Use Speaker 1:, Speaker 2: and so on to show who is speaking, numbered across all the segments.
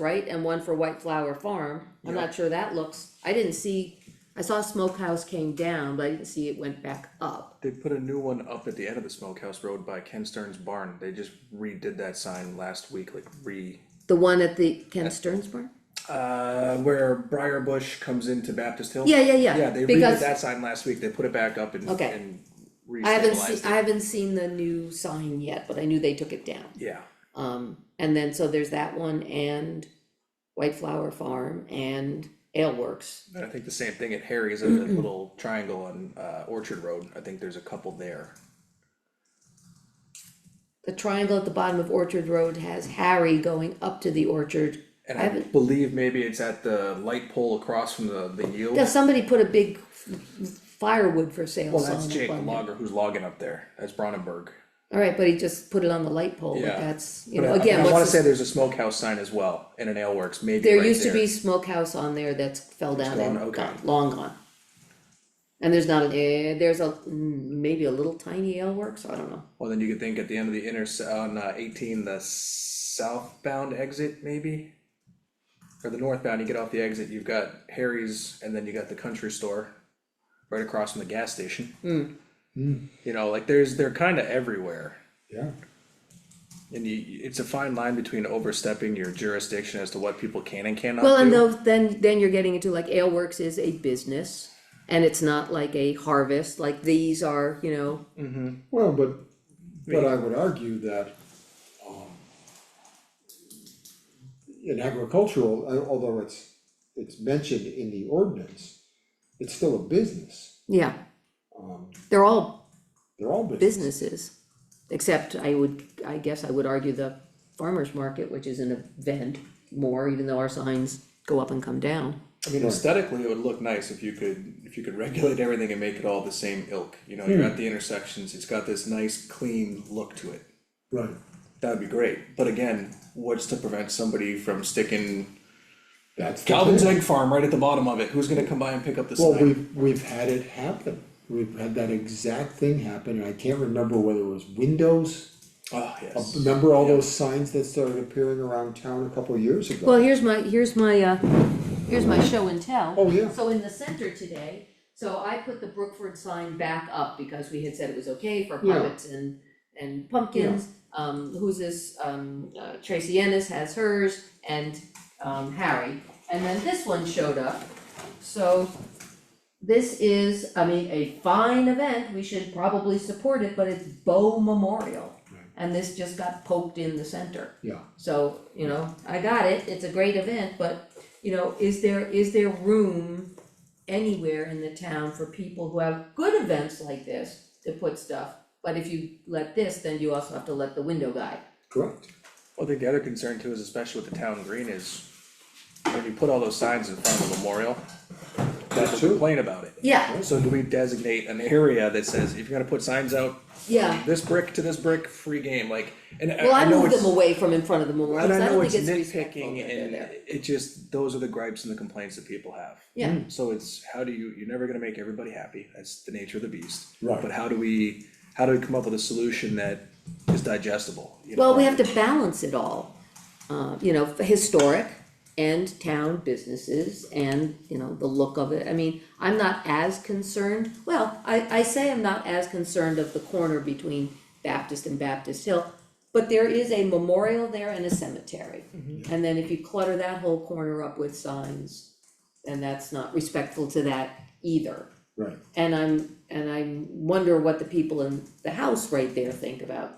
Speaker 1: right, and one for White Flower Farm, I'm
Speaker 2: Yeah.
Speaker 1: not sure that looks, I didn't see, I saw Smokehouse came down, but I didn't see it went back up.
Speaker 2: They put a new one up at the end of the Smokehouse Road by Ken Stern's barn, they just redid that sign last week, like re.
Speaker 1: The one at the Ken Stearns Barn?
Speaker 2: Uh, where Briar Bush comes into Baptist Hill.
Speaker 1: Yeah, yeah, yeah.
Speaker 2: Yeah, they redid
Speaker 1: Because
Speaker 2: that sign last week, they put it back up and,
Speaker 1: Okay.
Speaker 2: and
Speaker 1: I haven't
Speaker 2: re-stabilized it,
Speaker 1: seen, I haven't seen the new sign yet, but I knew they took it down.
Speaker 2: yeah,
Speaker 1: Um, and then, so there's that one and White Flower Farm and Ale Works.
Speaker 2: and I think the same thing at Harry's, in that little triangle on, uh, Orchard Road, I think there's a couple there.
Speaker 1: The triangle at the bottom of Orchard Road has Harry going up to the orchard.
Speaker 2: And
Speaker 1: I
Speaker 2: I
Speaker 1: haven't-
Speaker 2: believe maybe it's at the light pole across from the, the yield.
Speaker 1: Yeah, somebody put a big firewood for sale
Speaker 2: Well,
Speaker 1: sign
Speaker 2: that's
Speaker 1: up
Speaker 2: Jake the
Speaker 1: on there.
Speaker 2: logger who's logging up there, that's Brandenburg.
Speaker 1: Alright, but he just put it on the light pole, but
Speaker 2: Yeah.
Speaker 1: that's, you
Speaker 2: But
Speaker 1: know,
Speaker 2: I-
Speaker 1: again,
Speaker 2: I wanna
Speaker 1: what's,
Speaker 2: say
Speaker 1: the-
Speaker 2: there's a smokehouse sign as well, and an ale works, maybe
Speaker 1: there
Speaker 2: right
Speaker 1: used to be smokehouse on there that's fell down
Speaker 2: gone,
Speaker 1: and
Speaker 2: okay.
Speaker 1: gone, long gone. And there's not, an eh, there's a, mm, maybe a little tiny ale works, I don't know.
Speaker 2: Well, then you could think at the end of the inner, on uh, eighteen, the southbound exit, maybe? Or the northbound, you get off the exit, you've got Harry's, and then you got the country store, right across from the gas station.
Speaker 1: Hmm.
Speaker 2: You know, like, there's, they're kinda everywhere.
Speaker 3: Yeah,
Speaker 2: And you, it's a fine line between overstepping your jurisdiction as to what people can and cannot do.
Speaker 1: Well, and though, then, then you're getting into like Ale Works is a business, and it's not like a harvest, like these are, you know,
Speaker 3: well, but, but I would argue that, um. In agricultural, uh, although it's, it's mentioned in the ordinance, it's still a business,
Speaker 1: yeah.
Speaker 3: um,
Speaker 1: They're all
Speaker 3: they're all business.
Speaker 1: businesses, except I would, I guess I would argue the farmer's market, which is an event more, even though our signs go up and come down.
Speaker 2: I mean, aesthetically, it would look nice if you could, if you could regulate everything and make it all the same ilk, you know, you're at the intersections, it's got this nice, clean look to it.
Speaker 3: Right,
Speaker 2: That'd be great, but again, what's to prevent somebody from sticking
Speaker 3: that's the
Speaker 2: Calvin's
Speaker 3: thing,
Speaker 2: Egg Farm right at the bottom of it, who's gonna come by and pick up the
Speaker 3: well,
Speaker 2: sign?
Speaker 3: we've, we've had it happen, we've had that exact thing happen, and I can't remember whether it was windows.
Speaker 2: Oh, yes,
Speaker 3: Remember all those signs that started appearing around town a couple of years ago?
Speaker 1: Well, here's my, here's my, uh, here's my show and tell.
Speaker 3: Oh, yeah.
Speaker 1: So in the center today, so I put the Brookford sign back up because we had said it was okay for
Speaker 3: Yeah.
Speaker 1: puppets and, and pumpkins. Um, who's this, um, uh, Tracy Ennis has hers and, um, Harry. And then this one showed up, so this is, I mean, a fine event, we should probably support it, but it's Bow Memorial.
Speaker 3: Right.
Speaker 1: And this just got poked in the center.
Speaker 3: Yeah,
Speaker 1: So, you know, I got it, it's a great event, but, you know, is there, is there room anywhere in the town for people who have good events like this to put stuff? But if you let this, then you also have to let the window guy.
Speaker 3: correct,
Speaker 2: well, I think the other concern too is especially with the town green is, when you put all those signs in front of the memorial,
Speaker 3: That
Speaker 2: people
Speaker 3: too.
Speaker 2: complain about it.
Speaker 1: Yeah,
Speaker 2: So do we designate an area that says, if you're gonna put signs out,
Speaker 1: yeah,
Speaker 2: this brick to this brick, free game, like, and I
Speaker 1: well, I
Speaker 2: I know
Speaker 1: moved
Speaker 2: it's.
Speaker 1: them away from in front of the memorial,
Speaker 2: And
Speaker 1: 'cause
Speaker 2: I
Speaker 1: I
Speaker 2: know
Speaker 1: don't
Speaker 2: it's
Speaker 1: think it's respectful
Speaker 2: nitpicking
Speaker 1: that they're
Speaker 2: and
Speaker 1: there.
Speaker 2: it just, those are the gripes and the complaints that people have.
Speaker 1: Yeah,
Speaker 2: So it's, how do you, you're never gonna make everybody happy, that's the nature of the beast.
Speaker 3: Right.
Speaker 2: But how do we, how do we come up with a solution that is digestible, you know?
Speaker 1: well, we have to balance it all, uh, you know, historic and town businesses and, you know, the look of it, I mean, I'm not as concerned, well, I, I say I'm not as concerned of the corner between Baptist and Baptist Hill, but there is a memorial there and a cemetery.
Speaker 2: Mm-hmm.
Speaker 1: And then if you clutter that whole corner up with signs, then that's not respectful to that either.
Speaker 3: right.
Speaker 1: And I'm, and I wonder what the people in the house right there think about.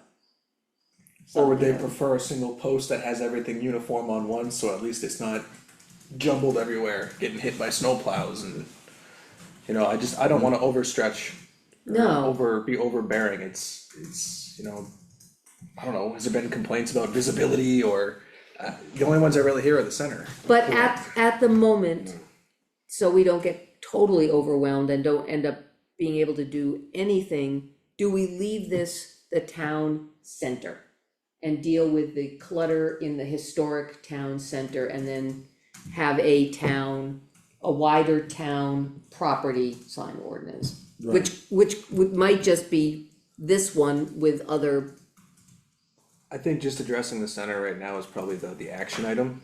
Speaker 2: Or would they
Speaker 1: something.
Speaker 2: prefer a single post that has everything uniform on one, so at least it's not jumbled everywhere, getting hit by snowplows and. You know, I just, I don't wanna overstretch. or
Speaker 1: No.
Speaker 2: Over, be overbearing, it's, it's, you know, I don't know, has there been complaints about visibility or, uh, the only ones I really hear are the center.
Speaker 1: But at, at the moment, so we don't get totally overwhelmed and don't end up being able to do anything, do we leave this the town center? And deal with the clutter in the historic town center and then have a town, a wider town property sign ordinance? Which, which would, might just be this one with other,
Speaker 2: I think just addressing the center right now is probably the, the action item,